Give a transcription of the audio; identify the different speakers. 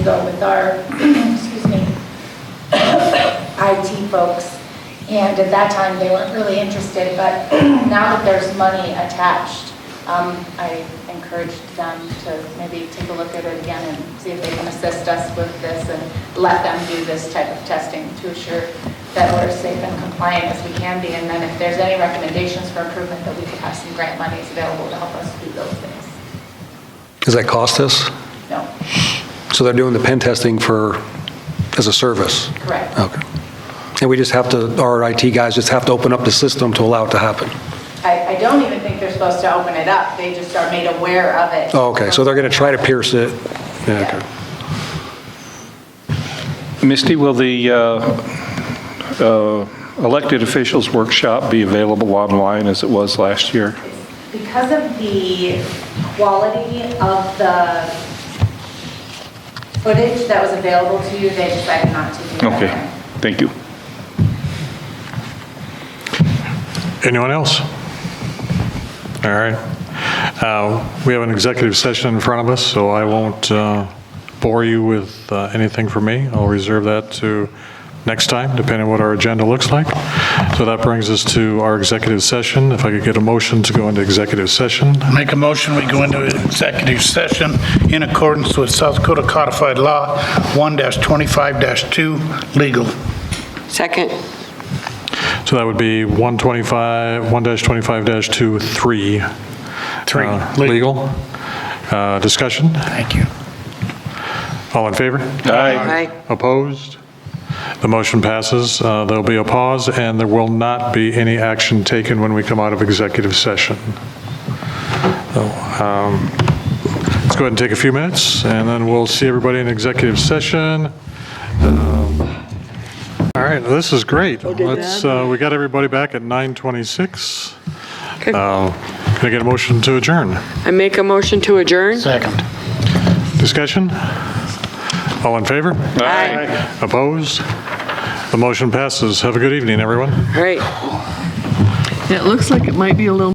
Speaker 1: go with our, excuse me, IT folks. And at that time, they weren't really interested, but now that there's money attached, um, I encouraged them to maybe take a look at it again and see if they can assist us with this and let them do this type of testing to assure that we're as safe and compliant as we can be. And then if there's any recommendations for improvement, that we could have some grant monies available to help us do those things.
Speaker 2: Does that cost us?
Speaker 1: No,
Speaker 2: So they're doing the pen testing for, as a service?
Speaker 1: correct.
Speaker 2: Okay. And we just have to, our IT guys just have to open up the system to allow it to happen?
Speaker 1: I, I don't even think they're supposed to open it up, they just are made aware of it.
Speaker 2: Oh, okay, so they're going to try to pierce it? Yeah, okay.
Speaker 3: Misty, will the uh, uh, elected officials workshop be available online as it was last year?
Speaker 1: Because of the quality of the footage that was available to you, they decided not to do that.
Speaker 3: Okay, thank you.
Speaker 4: Anyone else? All right. Uh, We have an executive session in front of us, so I won't uh, bore you with uh, anything from me. I'll reserve that to next time, depending on what our agenda looks like. So that brings us to our executive session. If I could get a motion to go into executive session.
Speaker 5: Make a motion, we go into executive session in accordance with South Dakota Codified Law 1-25-2, legal.
Speaker 6: Second.
Speaker 4: So that would be 125, 1-25-2, 3.
Speaker 5: Three,
Speaker 4: Uh,
Speaker 5: legal.
Speaker 4: Legal. Uh, Discussion?
Speaker 5: Thank you.
Speaker 4: All in favor?
Speaker 3: Aye.
Speaker 6: Aye.
Speaker 4: Opposed? The motion passes. Uh, There'll be a pause, and there will not be any action taken when we come out of executive session. So, um, Let's go ahead and take a few minutes, and then we'll see everybody in executive session. Um, All right, this is great. Let's, uh, we got everybody back at 9:26.
Speaker 6: Okay.
Speaker 4: Uh, Can I get a motion to adjourn?
Speaker 6: I make a motion to adjourn?
Speaker 5: Second.
Speaker 4: Discussion? All in favor?
Speaker 6: Aye.
Speaker 4: Opposed? The motion passes. Have a good evening, everyone.
Speaker 6: All right.
Speaker 7: It looks like it might be a little